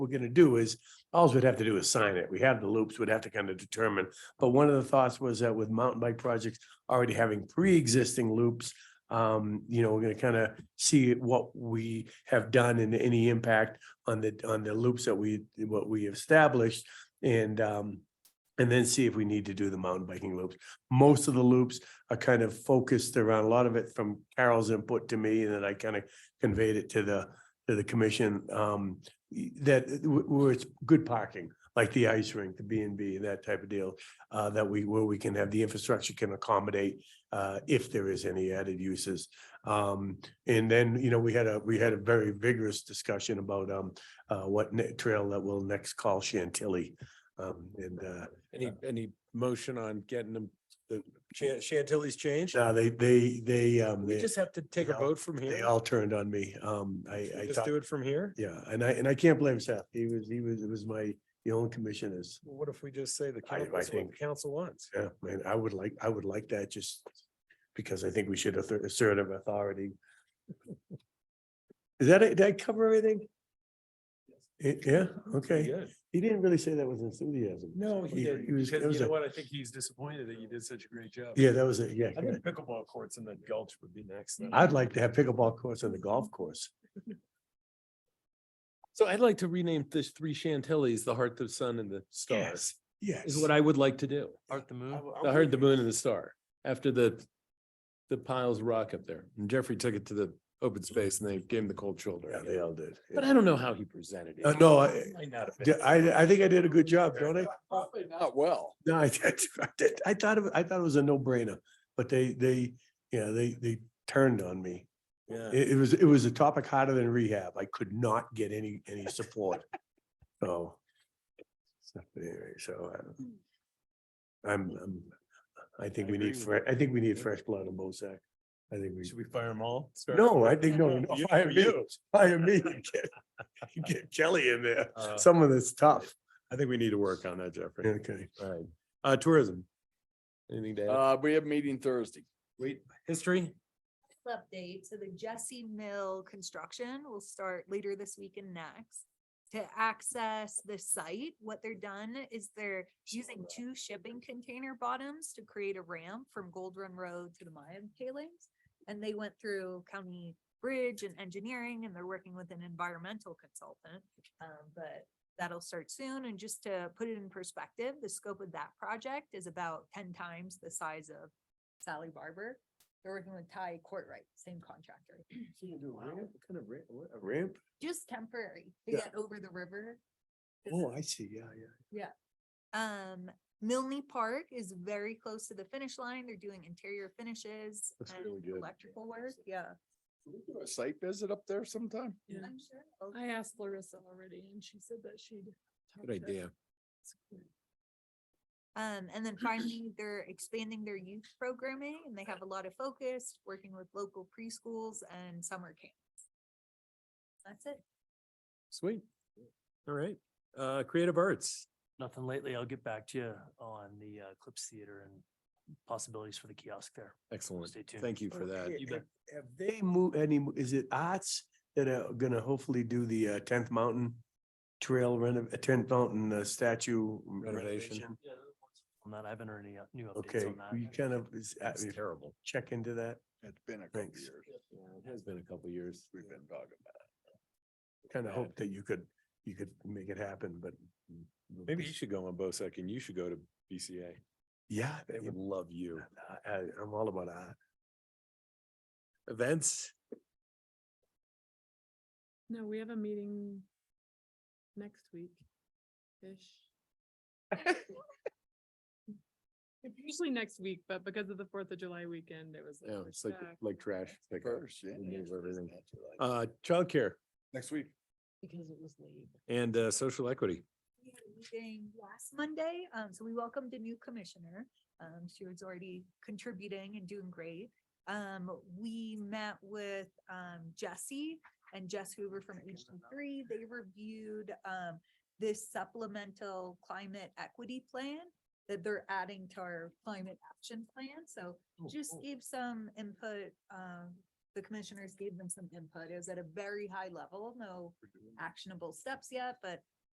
we're gonna do is, alls we'd have to do is sign it. We have the loops, we'd have to kind of determine. But one of the thoughts was that with mountain bike projects already having pre-existing loops, um, you know, we're gonna kind of see what we have done and any impact on the, on the loops that we, what we established. And, um, and then see if we need to do the mountain biking loops. Most of the loops are kind of focused around, a lot of it from Carol's input to me, and then I kind of conveyed it to the, to the commission, um, y- that w- where it's good parking, like the ice rink, the B and B, that type of deal, uh, that we, where we can have the infrastructure can accommodate, uh, if there is any added uses. Um, and then, you know, we had a, we had a very vigorous discussion about, um, uh, what ne- trail that we'll next call Chantilly. Um, and, uh, Any, any motion on getting them, the Chan- Chantilly's changed? no, they, they, they, um, We they, just have to take a they all- vote from they here. all turned on me. Um, I, We I Just thought, do it from here? yeah, and I, and I can't blame Seth. He was, he was, it was my, the only commissioners. Well, What if we just say the I- council, I that's what think- the council wants? Yeah, man, I would like, I would like that just because I think we should assert assertive authority. Is that, it? did I cover everything? Eh, Yeah, okay. Good. He didn't really say that with enthusiasm. No, he did, was- because it was you know a- what, I think he's disappointed that you did such a great job. Yeah, that was it, yeah. I think pickleball courts in the Gulch would be next. then. I'd like to have pickleball courts on the golf course. So I'd like to rename this three Chantilly's, the Heart, the Sun and the Star, Yes, Yes. is what I would like to do. Art the moon. I heard the moon and the star after the, the piles of rock up there. And Jeffrey took it to the open space and they gave him the cold Yeah, shoulder. they all did. yeah. But I don't know how he presented Uh, it. no, I- Might not have D- been. I, I think I did a good job, don't I? Probably not well. No, I did, I did. I thought, it- I thought it was a no brainer, but they, they, yeah, they, they turned on me. Yeah. It, it was, it was a topic hotter than rehab. I could not get any, any support. So. so anyway, So. um, I'm, I'm, I think I we agree need, with fre- I think we need Yeah. fresh blood in Bozac. I think we, Should we fire them all? Start- no, I think, no, no, You- fire me, you. fire me. Get- Get Kelly in there, Uh, someone that's tough. I think we need to work on that, Jeffrey. Okay. All right. Uh, tourism. Anything to add? Uh, we have meeting Thursday. Wait, history? update. So the Jesse Mill construction will start later this week and next. To access the site, what they're done is they're using two shipping container bottoms to create a ramp from Gold Run Road to the Mayan tailings. And they went through county bridge and engineering and they're working with an environmental consultant. Um, but that'll start soon. And just to put it in perspective, the scope of that project is about ten times the size of Sally Barber. They're working with Ty Courtright, same contractor, Kind of ramp, a ramp? just temporary to Yeah. get over the river. This Oh, is- I see, yeah, yeah. Um, Milne Park is very close to the finish line. They're doing interior finishes That's really and good. electrical work, yeah. Can we do A site visit up there sometime? Yeah. I'm sure. I'll- I asked Larissa already and she said that she'd. talk Good to- idea. Um, and then finally, they're expanding their youth programming and they have a lot of focus, working with local preschools and summer camps. That's it. Sweet. All right. Uh, creative arts. Nothing lately. I'll get back to you on the uh, Clips Theater and possibilities for the kiosk there. Excellent. Stay tuned. Thank you for that. Okay, You Have bet. have they moved any, is it arts that are gonna hopefully do the uh, tenth mountain trail renov, uh, tenth mountain uh, statue Renovation. renovation? On that, I haven't heard any uh, new updates Okay, on that. you kind of, is, uh, It's terrible. check into that, It's been a couple Thanks. years. Yeah, It has been a couple years. We've been talking about kind of Yeah. hope that you could, you could make it happen, but. mm, Maybe you should go on BOSEC and you should go to BCA. Yeah, They would love you. I, I- I'm all about art. Events, No, we have a meeting next week-ish. It's Usually next week, but because of the Fourth of July weekend, it was. like, yeah, we're it's like, stuck. like trash. it. pickup. First, yeah. We move it's everything. not July. Uh, childcare Next week. Because it was late. and, uh, social equity. We had a meeting last Monday, um, so we welcomed a new commissioner. Um, she was already contributing and doing great. Um, we met with, um, Jesse and Jess Hoover from HD three. They reviewed, um, this supplemental climate equity plan that they're adding to our climate action plan. So just gave some input, um, the commissioners gave them some input. It was at a very high level, no actionable steps yet, but